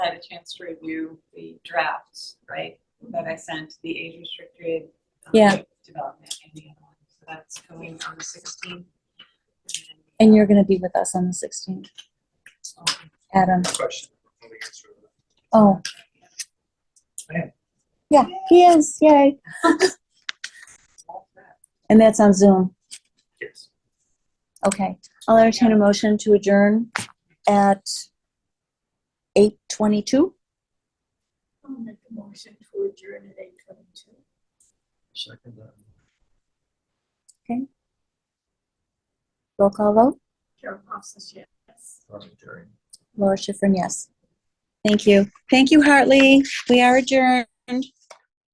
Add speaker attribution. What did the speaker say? Speaker 1: had a chance to review the drafts, right, that I sent, the age restricted. um,
Speaker 2: Yeah.
Speaker 1: Development and the other one, so that's going on the sixteenth.
Speaker 2: And you're gonna be with us on the sixteenth, Adam.
Speaker 3: Question. Let me answer that.
Speaker 2: Oh.
Speaker 3: I am.
Speaker 2: Yeah, he is, yay. And that's on Zoom.
Speaker 3: Yes.
Speaker 2: Okay. I'll entertain a motion to adjourn at eight twenty-two.
Speaker 4: I'll make a motion to adjourn at eight twenty-two.
Speaker 3: Second uh, that.
Speaker 2: Roll call vote.
Speaker 4: Carol Hofstas, yes.
Speaker 3: Commentary.
Speaker 2: Laura Schifrin, yes. Thank you. Thank you, Hartley. We are adjourned.